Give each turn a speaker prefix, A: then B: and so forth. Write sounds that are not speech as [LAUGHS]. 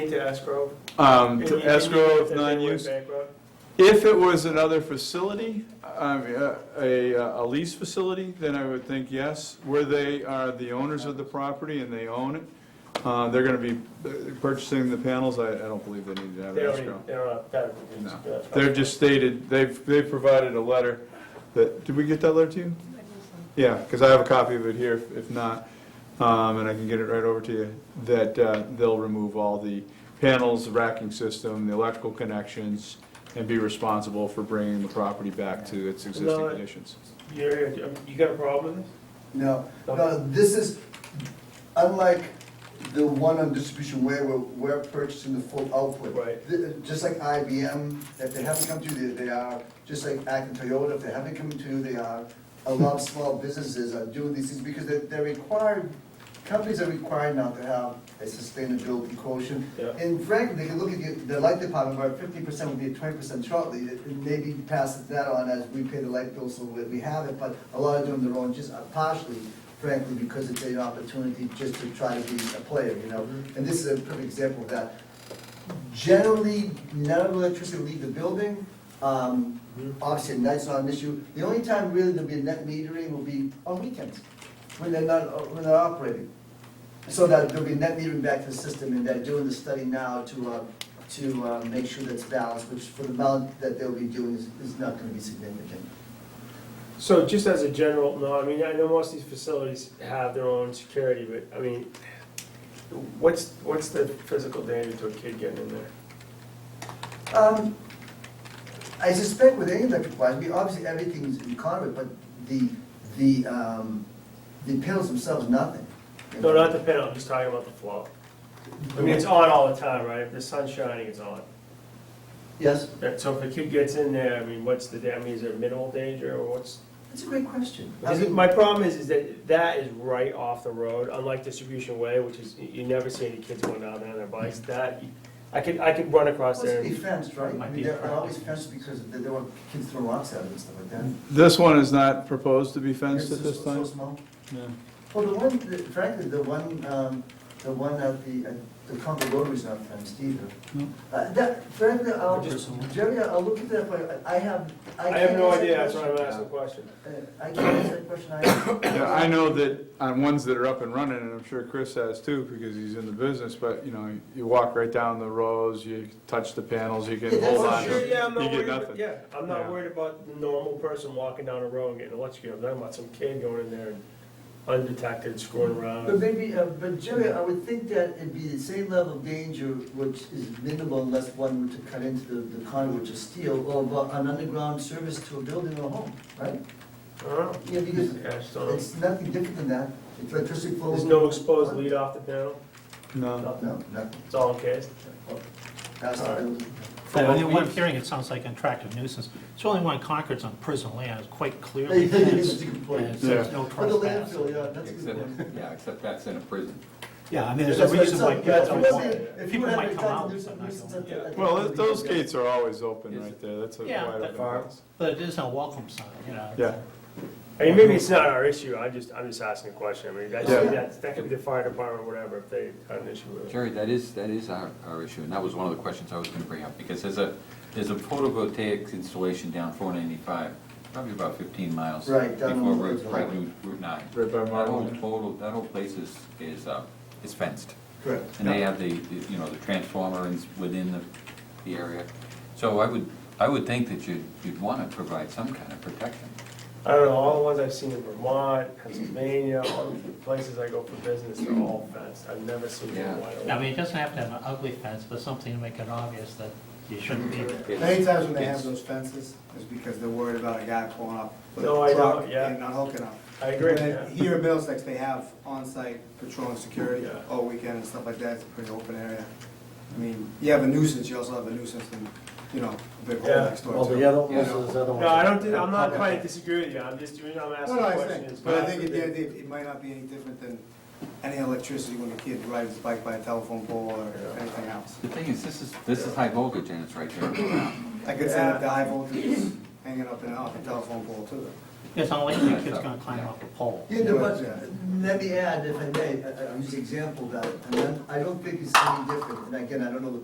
A: To escrow.
B: Um,
A: And you-
B: to
A: and you
B: escrow
A: think
B: of
A: that they went
B: non-use.
A: bankrupt?
B: If it was another facility, um, uh, a, a lease facility, then I would think yes, where they are the owners of the property and they own it. Uh, they're gonna be uh, purchasing the panels, I, I don't believe they need to have
A: They already,
B: escrow.
A: they're not, that would be-
B: No.
A: that's fine.
B: They're just stated, they've, they've provided a letter that, did we get that letter to you? Yeah, because I have a copy of it here, if- if not, um, and I can get it right over to you, that uh, they'll remove all the panels, the racking system, the electrical connections, and be responsible for bringing the property back to its existing
A: No, I-
B: conditions.
A: You're, you got a problem with
C: No, no, this is, unlike the one on distribution way where we're purchasing the full output.
A: Right.
C: Th- Just like IBM, if they haven't come to you, they they are, just like Act and Toyota, if they haven't come to you, they are. A lot of small businesses are doing these things because they're, they're required, companies are required now to have a sustainability quotient.
A: Yeah.
C: And frankly, they can look at the, the light department, where fifty percent would be at twenty percent shortly, and maybe pass that on as we pay the light bill, so we, we have it, but a lot of them, they're on just uh, partially, frankly, because it's an opportunity just to try to be a player, you know? And this is a perfect example of that. Generally, none of the electricity will leave the building, um, obviously, at night's not an issue. The only time really there'll be a net metering will be on weekends, when they're not, uh, when they're operating. So that there'll be net metering back to the system, and they're doing the study now to, uh, to uh, make sure that's balanced, which for the amount that they'll be doing is, is not gonna be significant.
A: So just as a general, no, I mean, I know most of these facilities have their own security, but, I mean, what's, what's the physical danger to a kid getting in there?
B: Mm-hmm.
C: Um, I suspect with any electric wires, we obviously everything's in conduit, but the, the, um, the panels themselves, nothing. you
A: No,
C: know.
A: not the panel, I'm just talking about the flow. I mean, it's on all the time, right? If the sun's shining, it's on.
C: Yes,
A: That- So if a kid gets in there, I mean, what's the, da- I mean, is there minimal danger, or what's?
C: that's a great question. I
A: Is it-
C: mean-
A: My problem is, is that that is right off the road, unlike Distribution Way, which is, you you never see any kids going down there on their bikes, that, I could, I could run across
C: Well,
A: there.
C: It's
A: and-
C: be fenced, right? I
A: Might
C: mean,
A: be
C: they're
A: a-
C: always fenced because they don't want kids throwing rocks at them and stuff like that.
B: This one is not proposed to be fenced
C: Yours
B: at
C: is
B: this
C: so
B: time?
C: small.
B: No.
C: Well, the one, that- frankly, the one, um, the one at the, at the Concord Rotary's not fenced either.
B: No.
C: Uh, that, frankly, I'll,
A: Just-
C: Jerry, I'll look at that, but I have, I
A: I
C: can't.
A: have no
C: answer
A: idea,
C: that
A: that's why I'm
C: question.
A: asking the question.
C: Uh, I can't answer that question either.
A: [COUGHS]
B: Yeah, I know that on ones that are up and running, and I'm sure Chris has too, because he's in the business, but, you know, you walk right down the rows, you touch the panels, you
A: [LAUGHS]
C: Yeah,
B: can
C: that's
B: hold
C: for
B: on to
C: sure,
B: it,
A: yeah, I'm
B: you
A: not
B: get
A: worried,
B: nothing.
A: about- yeah, I'm
B: Yeah.
A: not worried about the normal person walking down a road and getting electrocuted, I'm talking about some kid going in there and undetected, screwing
C: But
A: around.
C: maybe, uh, but Jerry, I would think that it'd be the same level of danger, which is minimal unless one were to cut into the, the conduit or steel, or bu- an underground service to a building or home, right?
A: I don't know.
C: Yeah, because
A: Yeah, I just don't know.
C: it's nothing different than that, it's electricity flow.
A: There's no exposed lead off the panel,
B: No.
A: nothing,
C: No, nothing.
A: it's all encased.
C: That's the building.
D: From what I'm hearing, it sounds like an attractive nuisance. It's only one Concord's on prison land, it's quite clearly
C: That's
D: fenced,
C: a good
D: and
C: point.
D: so there's
B: Yeah.
D: no
C: For the
D: trespass.
C: landfill, yeah, that's a good point.
E: Except, yeah, except that's in a prison.
D: Yeah, I mean, there's a
C: That's what
D: reason why
C: it's-
D: people
C: that's
D: don't
C: what
D: want
C: I'm
D: it.
C: saying. If you
D: People
C: had
D: might
C: the
D: come
C: time,
D: out,
C: there's
D: but
C: some
D: not
C: reasons
D: going.
C: that- that-
B: Well, those gates are always open
E: Is-
B: right there, that's a
D: Yeah,
B: wide
D: that
B: open
E: far?
B: house.
D: But it isn't a welcome sign, you know.
B: Yeah.
A: I mean, maybe it's not our issue, I'm just, I'm just asking a question, I mean, that's,
B: Yeah.
A: that's, that could be the fire department, or whatever, if they had an issue with it.
E: Jerry, that is, that is our, our issue, and that was one of the questions I was gonna bring up, because there's a, there's a photovoltaic installation down four ninety-five, probably about fifteen miles.
C: Right, down
E: Before
C: on
E: Route,
C: the
E: right,
C: highway.
E: Route- Route nine.
B: Right by
E: That whole
B: Marlin.
E: total, that whole place is, is, uh, is fenced.
C: Correct.
E: And they have the, the, you know, the transformer is within the, the area. So I would, I would think that you'd, you'd wanna provide some kind of protection.
A: I don't know, all the ones I've seen in Vermont, Pennsylvania, all the places I go for business, they're all fenced, I've never seen
E: Yeah.
A: one wide open.
D: I mean, it doesn't have to have an ugly fence, but something to make it obvious that you shouldn't be there.
F: Many times when they
E: It's-
F: have those fences, it's because they're worried about a guy pulling up with
A: No, I
F: a truck
A: know, yeah.
F: and not hooking up.
A: I agree,
F: But
A: yeah.
F: Here in Middlesex, they have on-site patrol and security
A: Yeah.
F: all weekend and stuff like that, it's a pretty open area. I mean, you have a nuisance, you also have a nuisance and, you know, a big hole
A: Yeah.
F: next door too.
G: Well, the other
F: you
G: ones,
F: know.
G: there's other ones.
A: No, I don't, do- I'm not
F: Okay.
A: trying to disagree with you, I'm just, I'm
F: No,
A: asking
F: no,
A: a
F: I
A: question.
F: think,
A: It's
F: but I
A: not
F: think at the
A: forbidden.
F: end of the day, it might not be any different than any electricity when a kid rides his bike by a telephone pole or anything else.
E: The thing is, this is, this is high voltage and it's right there.
F: I could send up the high voltages hanging up and off the telephone pole too.
D: It's not like the kid's gonna climb up a pole.
C: Yeah, no, but
F: Yeah.
C: let me add, if I may, I- I'll use the example that, and then I don't think it's any different, and again, I don't know the